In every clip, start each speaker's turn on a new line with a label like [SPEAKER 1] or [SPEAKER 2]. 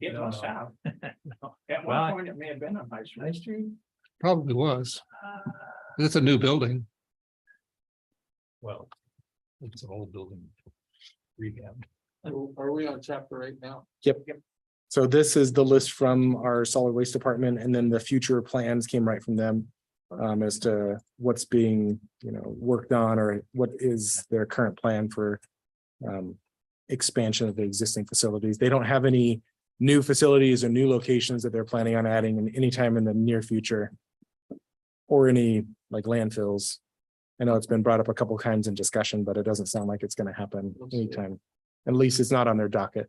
[SPEAKER 1] It
[SPEAKER 2] don't
[SPEAKER 1] must
[SPEAKER 2] know.
[SPEAKER 1] have. At
[SPEAKER 2] Well, I-
[SPEAKER 1] one point, it may have been on High Street.
[SPEAKER 3] Probably was.
[SPEAKER 1] Uh,
[SPEAKER 3] It's a new building.
[SPEAKER 2] Well, it's an old building. Rehab.
[SPEAKER 1] Are we on chapter eight now?
[SPEAKER 4] So this is the list from our solid waste department and then the future plans came right from them. Um, as to what's being, you know, worked on or what is their current plan for. Um, expansion of the existing facilities. They don't have any new facilities or new locations that they're planning on adding in any time in the near future. Or any like landfills. I know it's been brought up a couple times in discussion, but it doesn't sound like it's gonna happen
[SPEAKER 1] Let's see.
[SPEAKER 4] anytime. At least it's not on their docket.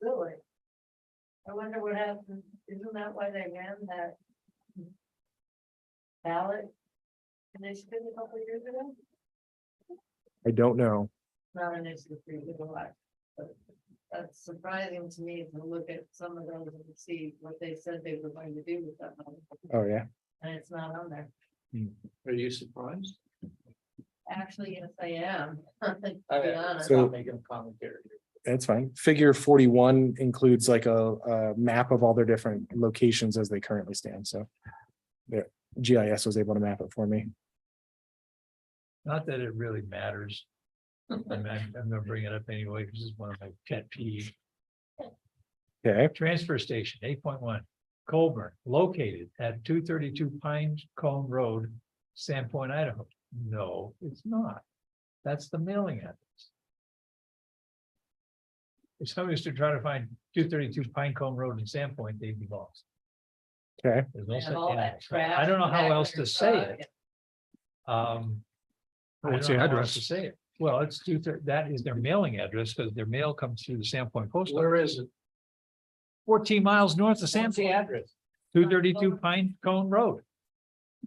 [SPEAKER 5] Really? I wonder what happened, isn't that why they ran that? Ballot? Initiative a couple years ago?
[SPEAKER 4] I don't know.
[SPEAKER 5] Not an issue for you to watch. but That's surprising to me to look at some of those and see what they said they were going to do with that money,
[SPEAKER 4] Oh, yeah.
[SPEAKER 5] and it's not on there.
[SPEAKER 1] Are you surprised?
[SPEAKER 5] Actually, yes, I am. To
[SPEAKER 1] I-
[SPEAKER 5] be
[SPEAKER 1] I'm
[SPEAKER 5] honest.
[SPEAKER 4] So-
[SPEAKER 1] not Making a commentary.
[SPEAKER 4] That's fine. Figure forty-one includes like a, a map of all their different locations as they currently stand, so. There, GIS was able to map it for me.
[SPEAKER 2] Not that it really matters. I'm, I'm gonna bring it up anyway, because it's one of my pet peeves.
[SPEAKER 4] Okay,
[SPEAKER 2] Transfer station, eight point one, Colburn, located at two thirty-two Pine Cone Road, Sandpoint, Idaho. No, it's not. That's the mailing address. If somebody was to try to find two thirty-two Pine Cone Road in Sandpoint, they'd be lost.
[SPEAKER 4] Okay.
[SPEAKER 2] There's no
[SPEAKER 5] And
[SPEAKER 2] such-
[SPEAKER 5] all
[SPEAKER 2] yeah,
[SPEAKER 5] that
[SPEAKER 2] so I
[SPEAKER 5] trash
[SPEAKER 2] don't know how
[SPEAKER 5] back
[SPEAKER 2] else
[SPEAKER 5] there,
[SPEAKER 2] to say
[SPEAKER 5] uh,
[SPEAKER 2] it. Um. I
[SPEAKER 3] What's
[SPEAKER 2] don't
[SPEAKER 3] the
[SPEAKER 2] know how else
[SPEAKER 3] address?
[SPEAKER 2] To say it. Well, it's two, thir- that is their mailing address, because their mail comes through the Sandpoint Post Office
[SPEAKER 1] Where is it?
[SPEAKER 2] fourteen miles north of
[SPEAKER 5] What's the
[SPEAKER 2] Sampson. address? Two thirty-two Pine Cone Road.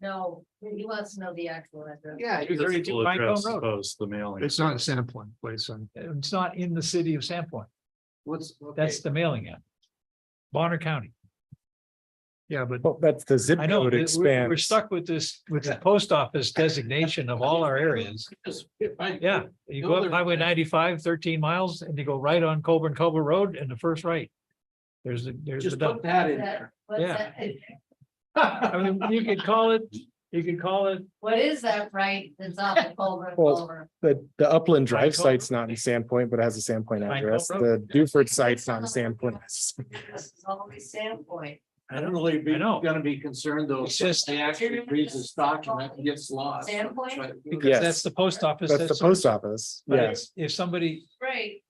[SPEAKER 5] No, he wants to know the actual address.
[SPEAKER 1] Yeah. you-
[SPEAKER 2] 232 Pine Cone Road.
[SPEAKER 3] It's not a sampling place on,
[SPEAKER 2] It's not in the city of Sampson.
[SPEAKER 1] What's? okay.
[SPEAKER 2] That's the mailing address. Bonner County.
[SPEAKER 3] yeah, but
[SPEAKER 4] well, that's the zip
[SPEAKER 2] I know,
[SPEAKER 4] code
[SPEAKER 2] that we're,
[SPEAKER 4] expands.
[SPEAKER 2] we're stuck with this, with the post office designation of all our areas.
[SPEAKER 1] Just- if I-
[SPEAKER 2] Yeah, you go up Highway ninety-five, thirteen miles, and you go right on Colburn Culver Road and the first right. There's, the there's the
[SPEAKER 1] Just
[SPEAKER 2] dump.
[SPEAKER 1] put that in
[SPEAKER 5] That-
[SPEAKER 1] there.
[SPEAKER 5] What's
[SPEAKER 2] Yeah.
[SPEAKER 5] that-
[SPEAKER 2] I mean, you could call it, you could call it
[SPEAKER 5] What is that right that's off the Culver
[SPEAKER 4] Well,
[SPEAKER 5] Culver?
[SPEAKER 4] The, the Upland Drive
[SPEAKER 2] Pinecone
[SPEAKER 4] site's not in Sandpoint, but it has a Sandpoint
[SPEAKER 2] Pinecone
[SPEAKER 4] address. The
[SPEAKER 2] Road.
[SPEAKER 4] Duford site's not in Sandpoint.
[SPEAKER 5] This is always Sandpoint.
[SPEAKER 1] I don't really be,
[SPEAKER 2] I know.
[SPEAKER 1] gonna be concerned though,
[SPEAKER 2] It's just-
[SPEAKER 1] since they actually reads this document and gets lost.
[SPEAKER 5] Standpoint?
[SPEAKER 1] Right.
[SPEAKER 2] because
[SPEAKER 4] Yes.
[SPEAKER 2] that's the post office.
[SPEAKER 4] That's the post office.
[SPEAKER 2] but
[SPEAKER 4] Yes,
[SPEAKER 2] it's- If somebody,
[SPEAKER 5] Right,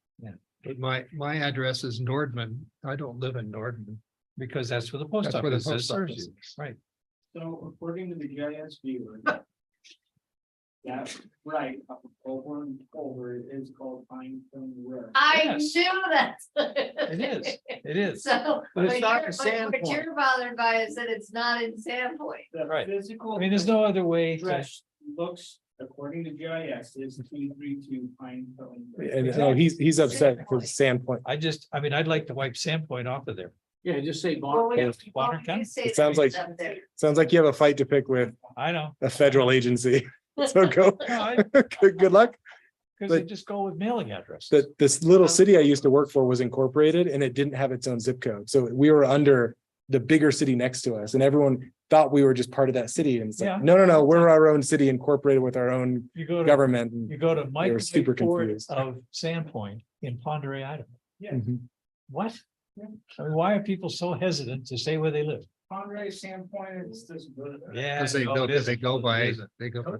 [SPEAKER 3] but my, my address is Nordman. I don't live in Nordman.
[SPEAKER 2] Because that's where the post
[SPEAKER 3] That's where the
[SPEAKER 2] office is,
[SPEAKER 3] post
[SPEAKER 2] serves
[SPEAKER 3] office
[SPEAKER 2] you, right?
[SPEAKER 1] So according to the GIS viewer. That's right, up over and over it is called Pine Cone Road.
[SPEAKER 5] I
[SPEAKER 2] Yes.
[SPEAKER 5] knew that.
[SPEAKER 2] It is, it is.
[SPEAKER 5] So.
[SPEAKER 1] But it's
[SPEAKER 5] what
[SPEAKER 1] not
[SPEAKER 5] you're-
[SPEAKER 1] in
[SPEAKER 5] What you're bothered by is that it's not in Sandpoint.
[SPEAKER 1] The
[SPEAKER 2] Right.
[SPEAKER 1] Physical.
[SPEAKER 2] I mean, there's no other way. to-
[SPEAKER 1] Address looks, according to GIS, is two three two Pine Cone. Road.
[SPEAKER 4] and no, he's, he's upset for Sandpoint.
[SPEAKER 2] I just, I mean, I'd like to wipe Sandpoint off of there.
[SPEAKER 1] Yeah, just say
[SPEAKER 5] Well, we-
[SPEAKER 1] Bonner.
[SPEAKER 5] well,
[SPEAKER 2] Bonner
[SPEAKER 5] you
[SPEAKER 2] County.
[SPEAKER 5] say
[SPEAKER 4] It sounds like-
[SPEAKER 5] it's up there.
[SPEAKER 4] Sounds like you have a fight to pick with
[SPEAKER 2] I know.
[SPEAKER 4] a federal agency. So go,
[SPEAKER 2] No, I-
[SPEAKER 4] good, good luck.
[SPEAKER 2] Cause they
[SPEAKER 4] But-
[SPEAKER 2] just go with mailing address.
[SPEAKER 4] that this little city I used to work for was incorporated and it didn't have its own zip code. So we were under the bigger city next to us and everyone thought we were just part of that city. And it's
[SPEAKER 2] Yeah.
[SPEAKER 4] like, no, no, no, we're our own city incorporated with our own
[SPEAKER 2] You go to,
[SPEAKER 4] government.
[SPEAKER 2] you
[SPEAKER 4] And-
[SPEAKER 2] go to Mike
[SPEAKER 4] super
[SPEAKER 2] Ford
[SPEAKER 4] confused.
[SPEAKER 2] of Sandpoint in Ponderay, Idaho.
[SPEAKER 4] Mhm.
[SPEAKER 2] What? I mean, why are people so hesitant to say where they live?
[SPEAKER 1] Conrad Sandpoint is this.
[SPEAKER 2] Yeah.
[SPEAKER 3] Because they
[SPEAKER 2] no,
[SPEAKER 3] go,
[SPEAKER 2] it isn't.
[SPEAKER 3] they go by, they go, by-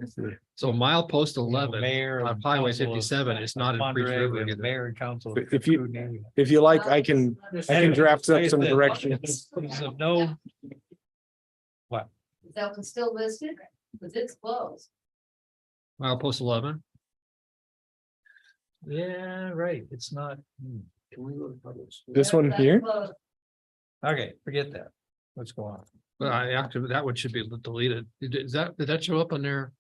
[SPEAKER 3] so mile post eleven
[SPEAKER 2] Mayor
[SPEAKER 3] on
[SPEAKER 2] and
[SPEAKER 3] Highway
[SPEAKER 2] council of
[SPEAKER 3] fifty-seven is not in Priest
[SPEAKER 2] Ponderay, we
[SPEAKER 3] River.
[SPEAKER 2] have
[SPEAKER 3] either.
[SPEAKER 2] Mayor and council.
[SPEAKER 4] But if you- If you like, I can, I can draft up some directions.
[SPEAKER 2] So No,
[SPEAKER 5] Is that one still listed? Cause it's closed.
[SPEAKER 3] Mile post eleven,
[SPEAKER 2] yeah, right, it's not, hmm.
[SPEAKER 1] Can we look at this?
[SPEAKER 4] This one
[SPEAKER 5] That's
[SPEAKER 4] here?
[SPEAKER 5] closed.
[SPEAKER 2] okay, forget that. Let's go on.
[SPEAKER 3] but I actually, that one should be deleted. Did is that, did that show up on their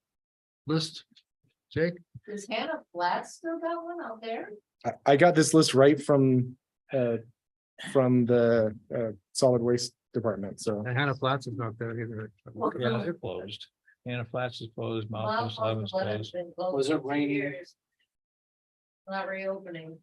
[SPEAKER 3] list? Jake?
[SPEAKER 5] Is Hannah Flat still got one out there?
[SPEAKER 4] I, I got this list right from, uh, from the, uh, solid waste department. So
[SPEAKER 3] And Hannah Flats is not there either.
[SPEAKER 2] Yeah, they're closed. Anna Flats is closed, Mount
[SPEAKER 5] Mount
[SPEAKER 2] Post Eleven's
[SPEAKER 5] Pleasant's
[SPEAKER 2] closed.
[SPEAKER 5] been closed
[SPEAKER 1] Was it
[SPEAKER 5] for two
[SPEAKER 1] raining?
[SPEAKER 5] years. Not reopening.